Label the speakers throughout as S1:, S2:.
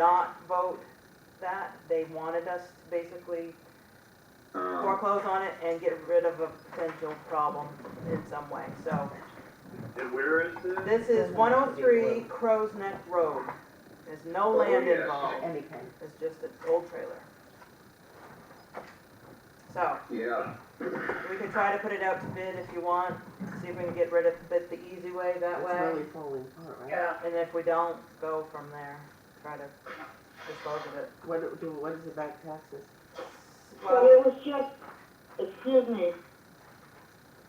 S1: not vote that. They wanted us to basically
S2: Um,
S1: foreclose on it and get rid of a potential problem in some way, so.
S2: And where is this?
S1: This is one oh three Crow's Neck Road. There's no
S2: Oh,
S1: land
S2: yes.
S1: involved,
S3: anything.
S1: it's just an old trailer. So,
S2: Yeah,
S1: we can try to put it out to bid if you want, see if we can get rid of it the easy way that
S3: It's
S1: way.
S3: really falling apart, right?
S4: Yeah,
S1: And if we don't, go from there, try to dispose of it.
S3: What, do- do, what is the back taxes?
S4: well,
S1: Well,
S4: it was just, excuse me,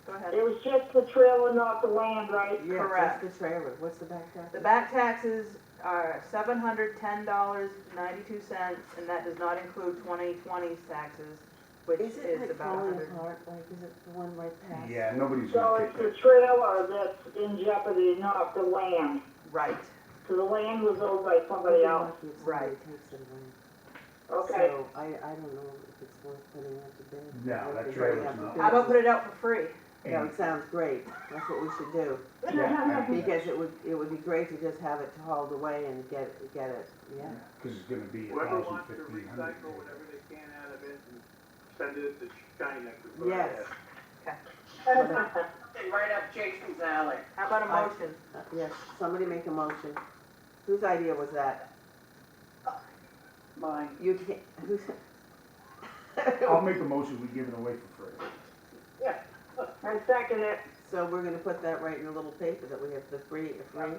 S1: go ahead.
S4: it was just the trailer, not the land, right?
S3: Yeah,
S1: Correct.
S3: Just the trailer, what's the back taxes?
S1: The back taxes are seven hundred ten dollars ninety-two cents, and that does not include 2020's taxes, which
S3: Is it
S1: is
S3: like
S1: about a
S3: falling
S1: hundred.
S3: apart, like, is it the one right past?
S5: Yeah, nobody's
S4: So
S5: gonna
S4: it's
S5: take
S4: the
S5: that.
S4: trailer that's in jeopardy, not the land,
S1: Right,
S4: So the land was owned by
S3: We'd
S4: somebody
S3: be
S5: Mm-hmm.
S4: else,
S3: lucky if
S1: Right.
S3: somebody takes it away.
S4: okay?
S3: So I, I don't know if it's worth putting out to bid.
S5: No,
S3: I don't
S5: that
S3: think we
S5: trailer's
S3: have to
S5: not
S3: bid.
S1: how about put it out for free?
S3: That would- sounds great, that's what we should do,
S5: Yeah, I think
S3: because it would, it would be great to just have it hauled away and get, get it, yeah.
S5: Cause it's gonna be a
S6: Whoever
S5: thousand
S6: wants to
S5: fifteen hundred.
S6: recycle whatever they can out of it and send it to China. 'cause we're-
S3: Yes.
S7: Something right up Jason's alley.
S1: How about a
S3: I-
S1: motion?
S3: Uh, Yes, somebody make a motion. Whose idea was that?
S7: Mine.
S3: You can't, who's?
S5: I'll make a motion, we give it away for free.
S4: I second it,
S3: So we're gonna put that right in a little paper that we have the free, the free.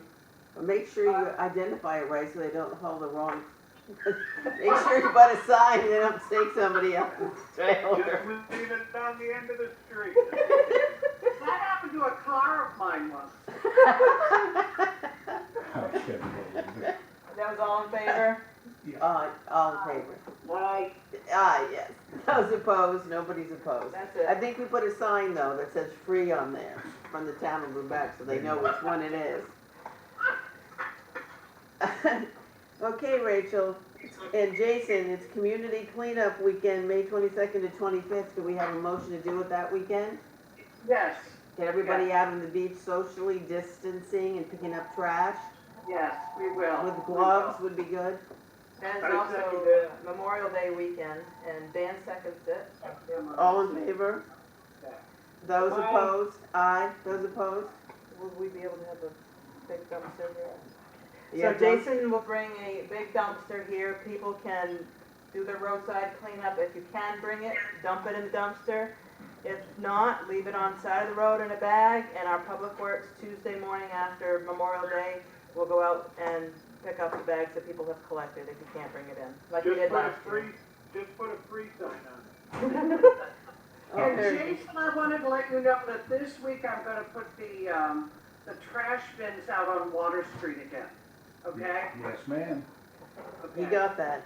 S3: But make sure you identify it right so they don't hold the wrong. Make sure you put a sign, they don't take somebody else's trailer.
S6: Just leave it down the end of the street.
S7: That happened to a car of mine once.
S5: I'll check it out a little bit.
S1: That was all in favor?
S3: Uh, all in favor?
S4: aye,
S3: Ah, yes. Those opposed, nobody's opposed.
S1: That's
S3: I
S1: it.
S3: think we put a sign though that says free on there from the town of Lubec so they know which one it is. Okay, Rachel, and Jason, it's community cleanup weekend, May twenty-second to twenty-fifth. Do we have a motion to do it that weekend?
S7: Yes,
S3: Get everybody out on the beach socially distancing and picking up trash
S7: yes, we will.
S3: with
S7: We
S3: gloves would be good.
S1: That is
S6: I second
S1: also
S6: that.
S1: Memorial Day weekend, and Dan seconds it.
S5: uh,
S7: will.
S3: All in favor? Those
S4: Aye.
S3: opposed? Aye. Those opposed?
S1: Will we be able to have a big dumpster here?
S3: Yeah,
S1: So
S3: don't-
S1: Jason will bring a big dumpster here, people can do their roadside cleanup, if you can bring it, dump it in the dumpster. If not, leave it on side of the road in a bag, and our public works Tuesday morning after Memorial Day will go out and pick up the bags that people have collected if you can't bring it in, like we
S6: Just
S1: did
S6: put a
S1: last year.
S6: free, just put a free sign on it.
S3: Oh,
S7: And
S3: there-
S7: Jason, I wanted to let you know that this week I'm gonna put the, um, the trash bins out on Water Street again, okay?
S5: Yes, ma'am.
S3: You
S7: Okay.
S3: got that.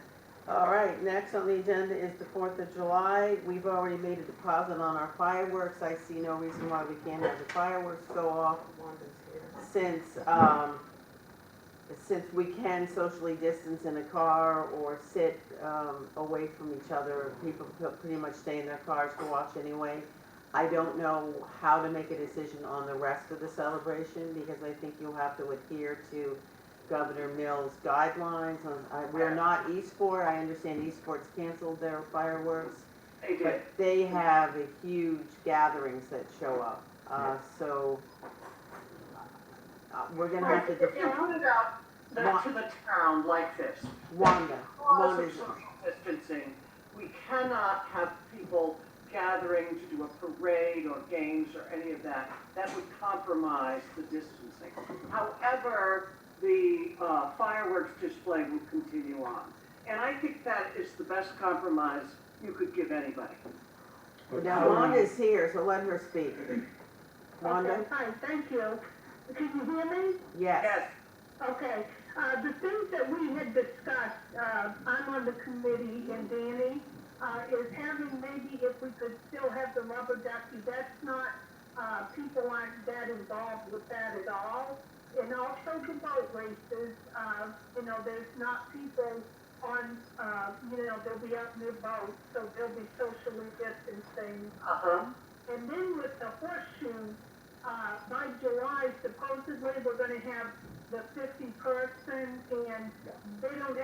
S3: All right, next on the agenda is the Fourth of July. We've already made a deposit on our fireworks. I see no reason why we can't have the fireworks go off
S1: Wanda's here.
S3: since, um, since we can socially distance in a car or sit, um, away from each other. People pe- pretty much stay in their cars to watch anyway. I don't know how to make a decision on the rest of the celebration because I think you'll have to adhere to Governor Mills guidelines on, I, we're not Eastport. I understand Eastport's canceled their fireworks.
S7: They did.
S3: But they have a huge gatherings that show up, uh, so, uh, we're gonna have to
S7: If you
S3: defer,
S7: put it out to the town like this,
S3: Wanda,
S7: laws of
S3: Wanda's,
S7: social distancing, we cannot have people gathering to do a parade or games or any of that. That would compromise the distancing. However, the uh, fireworks display would continue on. And I think that is the best compromise you could give anybody.
S5: But
S3: now
S5: how do we-
S3: Wanda's here, so let her speak. Wanda,
S8: Okay, fine, thank you. Can you hear me?
S3: yes,
S7: Yes,
S8: Okay, uh, the things that we had discussed, uh, I'm on the committee and Danny, uh, is having maybe if we could still have the rubber ducky, that's not, uh, people aren't that involved with that at all. And also the boat races, uh, you know, there's not people on, uh, you know, they'll be out in their boats, so they'll be socially distancing.
S7: uh-huh.
S8: And then with the horseshoe, uh, by July supposedly, we're gonna have the fifty person and they don't